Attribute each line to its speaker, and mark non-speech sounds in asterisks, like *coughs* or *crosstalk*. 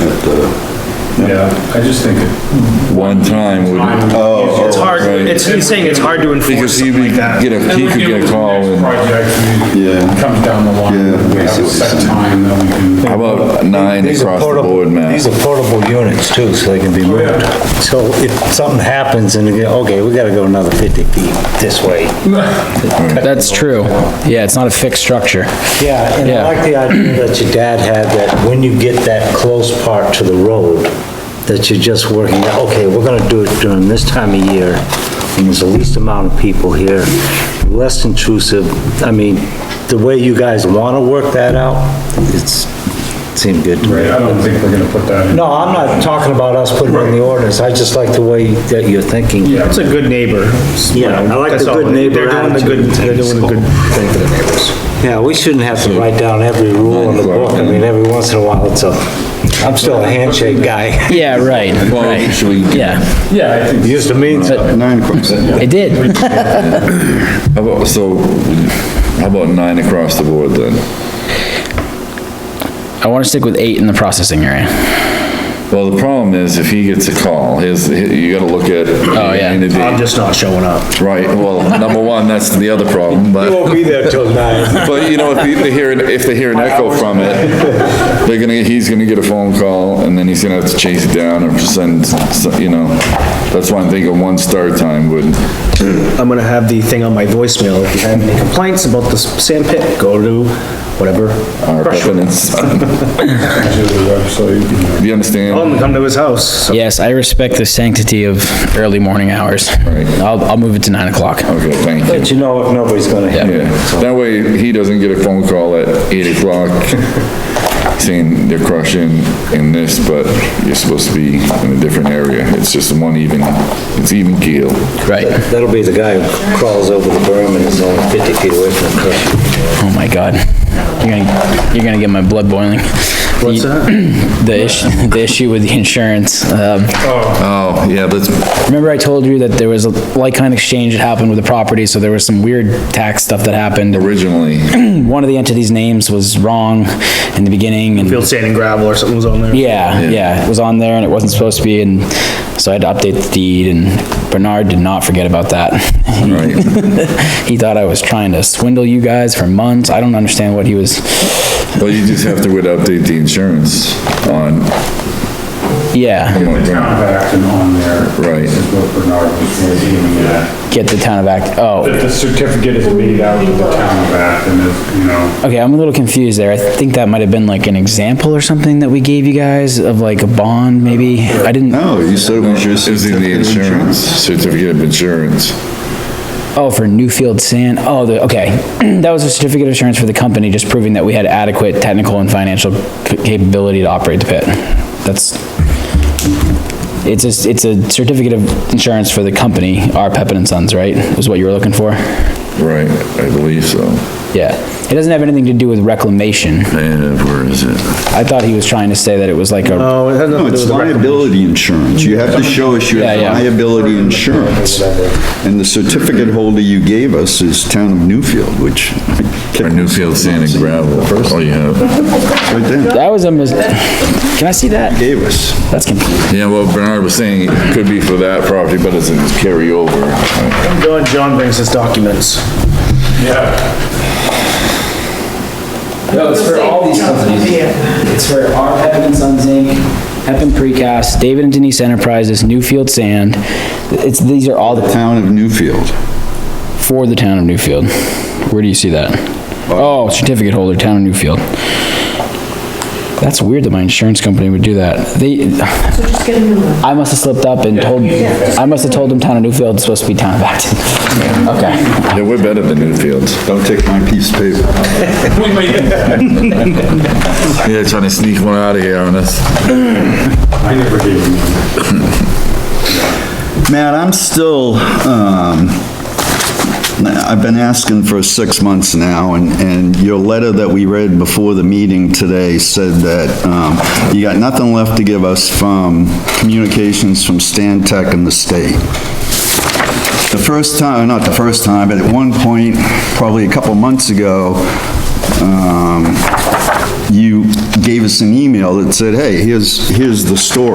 Speaker 1: Yeah, I just think it.
Speaker 2: one time would,
Speaker 1: Oh.
Speaker 3: It's hard,
Speaker 2: Right.
Speaker 3: it's, he's saying it's hard to enforce
Speaker 2: because he
Speaker 3: something
Speaker 2: would
Speaker 3: like that.
Speaker 2: get a, he could get a call and,
Speaker 1: Project, we-
Speaker 4: Yeah.
Speaker 1: comes down the line.
Speaker 4: Yeah,
Speaker 1: We
Speaker 4: I
Speaker 1: have a
Speaker 4: see what you're
Speaker 1: set
Speaker 4: saying.
Speaker 1: time that we can.
Speaker 2: how about nine
Speaker 5: These are
Speaker 2: across the
Speaker 5: portable-
Speaker 2: board,
Speaker 5: These
Speaker 2: Matt?
Speaker 5: are portable units too, so they can be moved. So if something happens and you go, okay, we gotta go another fifty feet this way.
Speaker 6: That's true. Yeah, it's not a fixed structure.
Speaker 5: Yeah, and I
Speaker 6: Yeah.
Speaker 5: like the idea that your dad had, that when you get that close part to the road, that you're just working, out, okay, we're gonna do it during this time of year, and there's the least amount of people here, less intrusive, I mean, the way you guys wanna work that out, it's, seemed good to me.
Speaker 1: I don't think we're gonna put that in.
Speaker 5: No, I'm not talking about us putting it in the ordinance, I just like the way that you're thinking.
Speaker 1: Yeah.
Speaker 3: It's a good neighbor. you
Speaker 5: Yeah, I
Speaker 3: know,
Speaker 5: like the
Speaker 3: that's all.
Speaker 5: good neighbor
Speaker 3: They're doing the good,
Speaker 5: attitude.
Speaker 3: they're doing a good thing for the neighbors.
Speaker 5: Yeah, we shouldn't have to write down every rule in the book, I mean, every once in a while, it's a, I'm still a handshake guy.
Speaker 6: Yeah, right,
Speaker 2: Well,
Speaker 6: right.
Speaker 2: should we,
Speaker 6: Yeah,
Speaker 1: Yeah, I think.
Speaker 5: Used to mean something.
Speaker 4: Nine across.
Speaker 6: it did.
Speaker 2: how about, so, how about nine across the board then?
Speaker 6: I want to stick with eight in the processing area.
Speaker 2: Well, the problem is if he gets a call, his, you gotta look at. Oh,
Speaker 3: *laughs*
Speaker 6: yeah.
Speaker 3: I'm just not showing up.
Speaker 2: Right, well, number one, that's the other problem,
Speaker 3: *laughs*
Speaker 2: but.
Speaker 5: be there till nine.
Speaker 2: But you know, if you- they hear, an- if they hear an echo from it, they're gonna, he's gonna get a phone call and then he's gonna have to chase it down or send, s- you know. That's why I'm thinking one start time would,
Speaker 3: I'm gonna have the thing on my voicemail, if you have any complaints about the sand pit, go to whatever.
Speaker 2: our evidence.
Speaker 1: To the website, you know.
Speaker 2: Do *laughs* you understand?
Speaker 3: Tell him to come to his house, so
Speaker 6: Yes, I respect the sanctity of early morning hours.
Speaker 2: Right.
Speaker 6: I'll, I'll move it to nine o'clock.
Speaker 2: Okay, thank you.
Speaker 5: But you know, nobody's gonna hear
Speaker 2: Yeah,
Speaker 5: it, so.
Speaker 2: that way he doesn't get a phone call at eight o'clock saying they're crushing in this, but you're supposed to be in a different area. It's just one even, it's even keel.
Speaker 6: Right.
Speaker 5: That'll be the guy who crawls over the berm and is only fifty feet away from the crusher.
Speaker 6: Oh my God. You're gonna, you're gonna get my blood boiling. What's that? *clears throat* The issue, the issue with the insurance. Um,
Speaker 2: Oh, yeah, that's,
Speaker 6: remember I told you that there was a like-kind exchange that happened with the property, so there was some weird tax stuff that
Speaker 2: *coughs*
Speaker 6: happened. *clears throat*
Speaker 2: originally,
Speaker 6: One of the entities' names was wrong in the beginning and
Speaker 3: field sand and gravel or something was on there.
Speaker 6: Yeah, yeah, it was on there and it wasn't supposed to be, and so I had to update the deed, and Bernard did not forget about that. *laughs*
Speaker 2: right?
Speaker 6: He thought I was trying to swindle you guys for months, I don't understand what he was,
Speaker 2: Well, you just have to would update the insurance on,
Speaker 6: yeah,
Speaker 1: Town of Acton on there.
Speaker 2: Right.
Speaker 1: This is what Bernard was aiming at.
Speaker 6: get the town of Act, oh,
Speaker 1: That the certificate is made out to the town of Acton is, you know,
Speaker 6: okay, I'm a little confused there, I think that might have been like an example or something that we gave you guys of like a bond, maybe, I didn't,
Speaker 4: No,
Speaker 2: Oh,
Speaker 4: you said it was your
Speaker 2: is in the
Speaker 4: certificate of
Speaker 2: insurance,
Speaker 4: insurance.
Speaker 2: certificate of insurance.
Speaker 6: oh, for Newfield Sand, oh, the, okay, *clears throat* that was a certificate of insurance for the company, just proving that we had adequate technical and financial capability to operate the pit, that's, It's a, it's a certificate of insurance for the company, R. Pepin and Sons, right? Was what you were looking for?
Speaker 2: Right, I believe so.
Speaker 6: Yeah. It doesn't have anything to do with reclamation.
Speaker 2: And where is it?
Speaker 6: I thought he was trying to say that it was like a,
Speaker 3: No, it has
Speaker 4: No,
Speaker 3: nothing to do with
Speaker 4: it's
Speaker 3: the
Speaker 4: liability insurance. You have to show us you have
Speaker 6: Yeah, yeah.
Speaker 4: liability insurance. And the certificate holder you gave us is Town of Newfield, which, *laughs*
Speaker 2: Or Newfield Sand and Gravel, oh, you have.
Speaker 4: right there,
Speaker 6: that was a mis, can I see that?
Speaker 4: gave us.
Speaker 6: That's confusing.
Speaker 2: Yeah, well, Bernard was saying it could be for that property, but it's a carryover.
Speaker 3: record. John, John brings his documents.
Speaker 1: yeah.
Speaker 6: No, it's for all these companies. It's for R. Pepin and Sons Inc., Pepin Precast, David and Denise Enterprises, Newfield Sand. It's, these are all the,
Speaker 4: Town of Newfield.
Speaker 6: for the town of Newfield. Where do you see that? Oh, certificate holder, town of Newfield. That's weird that my insurance company would do that. They, *sighs*
Speaker 7: So just get a new one.
Speaker 6: I must have slipped up and told, I must have told him town of Newfield is supposed to be town of Acton. Okay.
Speaker 2: Yeah, we're better than Newfield.
Speaker 4: Don't take my piece of paper.
Speaker 2: Yeah, trying to sneak one out of here on us.
Speaker 1: I never gave him one.
Speaker 4: Matt, I'm still, um, I've been asking for six months now, and, and your letter that we read before the meeting today said that, um, you got nothing left to give us from communications from Stan Tech and the state. The first time, not the first time, but at one point, probably a couple months ago, um, you gave us an email that said, hey, here's, here's the story.